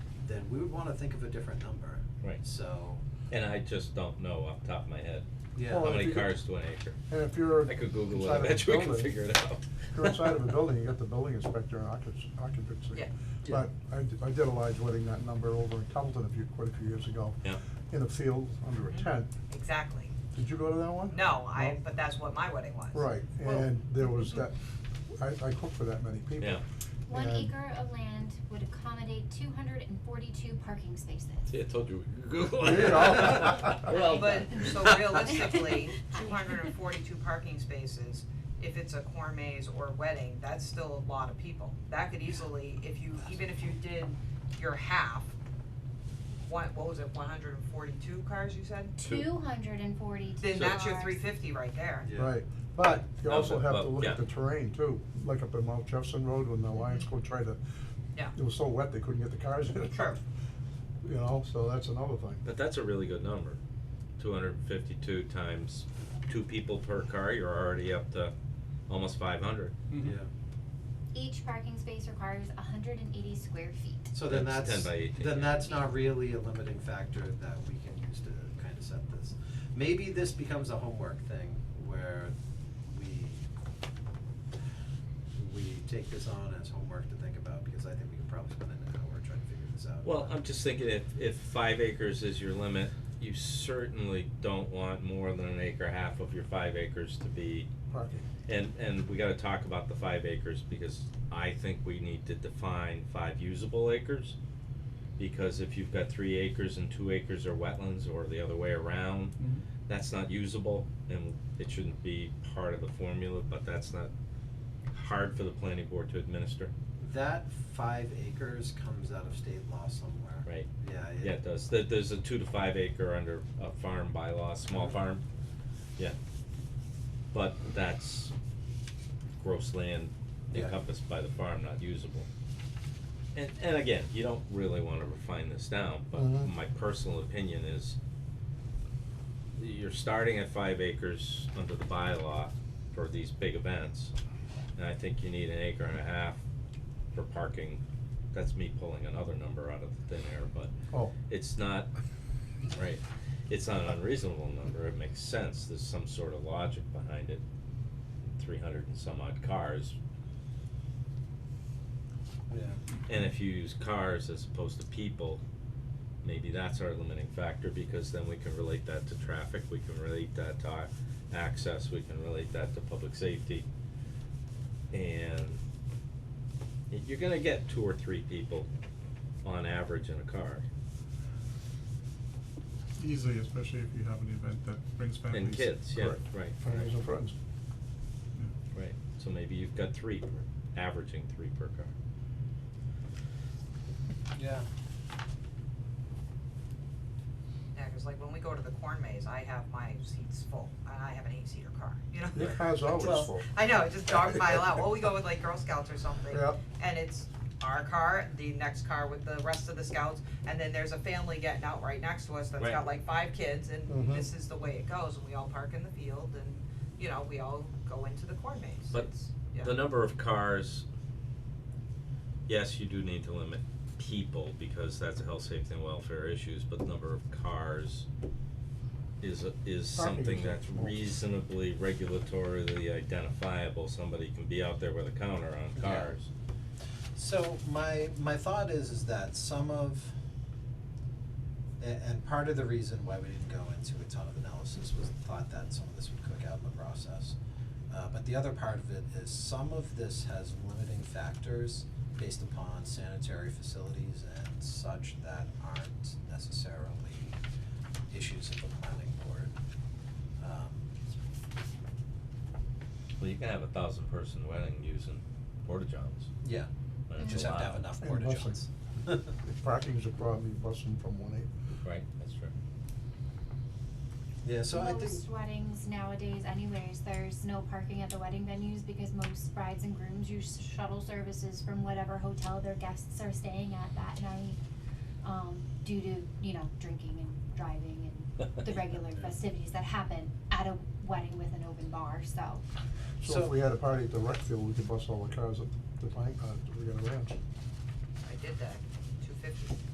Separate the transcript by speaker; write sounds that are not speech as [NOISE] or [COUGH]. Speaker 1: then we would wanna think of a different number.
Speaker 2: Right.
Speaker 1: So,
Speaker 2: And I just don't know off the top of my head,
Speaker 1: yeah.
Speaker 2: how
Speaker 3: Well, if
Speaker 2: many
Speaker 3: you could-
Speaker 2: cars to an acre?
Speaker 3: And if you're
Speaker 2: I could Google it,
Speaker 3: inside
Speaker 2: I
Speaker 3: of a
Speaker 2: bet you we can
Speaker 3: building-
Speaker 2: figure it out.
Speaker 3: If you're inside of a
Speaker 2: [LAUGHS]
Speaker 3: building, you got the building inspector and occup- occupancy.
Speaker 4: Yeah.
Speaker 3: But I, d- I did a large wedding, that number over in Templeton a few, quite a few years ago.
Speaker 2: Yeah.
Speaker 3: In a field, under a
Speaker 4: Mhm.
Speaker 3: tent.
Speaker 4: Exactly.
Speaker 3: Did you go to that one?
Speaker 4: No, I, but that's what my wedding was. mm-hmm.
Speaker 3: Right,
Speaker 1: Well-
Speaker 3: and there was that, I, I cooked for that many people.
Speaker 2: Yeah.
Speaker 5: One
Speaker 3: And-
Speaker 5: acre of land would accommodate two hundred and forty-two parking spaces.
Speaker 2: See, I told you we could Google
Speaker 3: There
Speaker 2: it. [LAUGHS]
Speaker 3: you go.
Speaker 5: Well
Speaker 4: But,
Speaker 5: done. [LAUGHS]
Speaker 4: so realistically, two hundred and forty-two parking spaces, if it's a cormets or wedding, that's still a lot of people. That could easily, if you, even if you did your half, one, what was it, one hundred and forty-two cars you said?
Speaker 5: Two hundred and forty-two
Speaker 4: Then that's your
Speaker 5: cars.
Speaker 4: three fifty right there.
Speaker 1: Yeah.
Speaker 3: Right, but you
Speaker 2: No,
Speaker 3: also
Speaker 2: but-
Speaker 3: have
Speaker 2: but-
Speaker 3: to look
Speaker 2: yeah. Mm-hmm.
Speaker 3: at the terrain too, like up in Mount Jefferson Road when the Lions go try to.
Speaker 4: Yeah.
Speaker 3: It was so wet, they couldn't get the cars in.
Speaker 4: Sure.
Speaker 3: [LAUGHS] You know, so that's another thing.
Speaker 2: [LAUGHS] But that's a really good number, two hundred and fifty-two times two people per car, you're already up to almost five hundred.
Speaker 1: Yeah,
Speaker 5: Each parking space requires hundred and eighty square feet.
Speaker 1: so then
Speaker 2: That's
Speaker 1: that's,
Speaker 2: 10 by 18,
Speaker 1: then
Speaker 2: yeah.
Speaker 1: that's not really a limiting factor that we can use to kind of set this. Maybe this becomes a homework thing where we, we take this on as homework to think about, because I think we could probably spend an hour trying to figure this out.
Speaker 2: Well, um, I'm just thinking if, if five acres is your limit, you certainly don't want more than an acre, half of your five acres to be
Speaker 3: Parking.
Speaker 2: And, and we gotta talk about the five acres, because I think we need to define five usable acres. Because if you've got three acres and two acres are wetlands, or the other way around, that's not usable, and it shouldn't be part of the formula, but that's not hard for the planning board to administer,
Speaker 1: That five acres comes out of state law somewhere.
Speaker 2: right?
Speaker 1: Yeah, it-
Speaker 2: Yeah, it does, there, there's a two to five acre under a farm bylaw, small
Speaker 1: Uh-huh.
Speaker 2: farm, yeah. But that's gross land
Speaker 1: Yeah.
Speaker 2: encompassed by the farm, not usable. And, and again, you don't really wanna refine this down, but
Speaker 1: Uh-huh.
Speaker 3: Mhm.
Speaker 2: my personal opinion is you're starting at five acres under the bylaw for these big events, and I think you need an acre and a half for parking. That's me pulling another number out of thin air, but
Speaker 3: Oh,
Speaker 2: it's not, right, it's not an unreasonable number, it makes sense, there's some sort of logic behind it. Three hundred and some odd cars,
Speaker 1: Yeah.
Speaker 2: and if you use cars as opposed to people, maybe that's our limiting factor, because then we can relate that to traffic, we can relate that to our access, we can relate that to public safety. And y- you're gonna get two or three people on average in a car,
Speaker 6: Easily, especially if you have an event that brings families.
Speaker 2: and kids, yeah, right.
Speaker 3: Correct. families and friends.
Speaker 2: Right, so maybe you've got three, per- averaging three per car.
Speaker 1: Yeah.
Speaker 4: Yeah, 'cause like when we go to the corn maze, I have my seats full, and I have an eight-seater car, you know?
Speaker 3: Your car's always
Speaker 4: Well,
Speaker 3: full.
Speaker 4: I know, it just dog pile out, well, we go with like Girl Scouts or something.
Speaker 3: Yep.
Speaker 4: And it's our car, the next car with the rest of the scouts, and then there's a family getting out right next to us that's
Speaker 2: Right.
Speaker 4: got like five kids, and
Speaker 3: Mhm.
Speaker 4: this is the way it goes, and we all park in the field, and, you know, we all go into the corn maze,
Speaker 2: But
Speaker 4: It's- yeah.
Speaker 2: The number of cars, yes, you do need to limit people because that's a health, safety and welfare issues, but the number of cars is a- is
Speaker 3: Parking is
Speaker 2: something that's
Speaker 3: small.
Speaker 2: reasonably regulatorily identifiable, somebody can be out there with a counter on
Speaker 1: Yeah.
Speaker 2: cars.
Speaker 1: So my my thought is is that some of a- and part of the reason why we didn't go into a ton of analysis was the thought that some of this would cook out in the process. Uh, but the other part of it is some of this has limiting factors based upon sanitary facilities and such that aren't necessarily issues of the planning board. Um,
Speaker 2: Well, you can have a thousand person wedding using porta johns,
Speaker 1: yeah,
Speaker 2: but
Speaker 1: you
Speaker 2: it's
Speaker 1: just have to have
Speaker 2: allowed.
Speaker 1: enough
Speaker 3: And
Speaker 1: porta
Speaker 3: busing.
Speaker 1: johns.
Speaker 3: If parking's a problem, you bust them from one eight.
Speaker 2: Right, that's true.
Speaker 1: [LAUGHS] Yeah, so I think.
Speaker 5: Most weddings nowadays anyways, there's no parking at the wedding venues because most brides and grooms use shuttle services from whatever hotel their guests are staying at that night. Um, due to, you know, drinking and driving
Speaker 2: [LAUGHS]
Speaker 5: and the regular festivities that happen at a wedding with an open bar, so.
Speaker 3: So
Speaker 1: So-
Speaker 3: if we had a party at the rec field, we could bust all the cars at the pine, uh, we got a ranch.
Speaker 4: I did that, two fifty.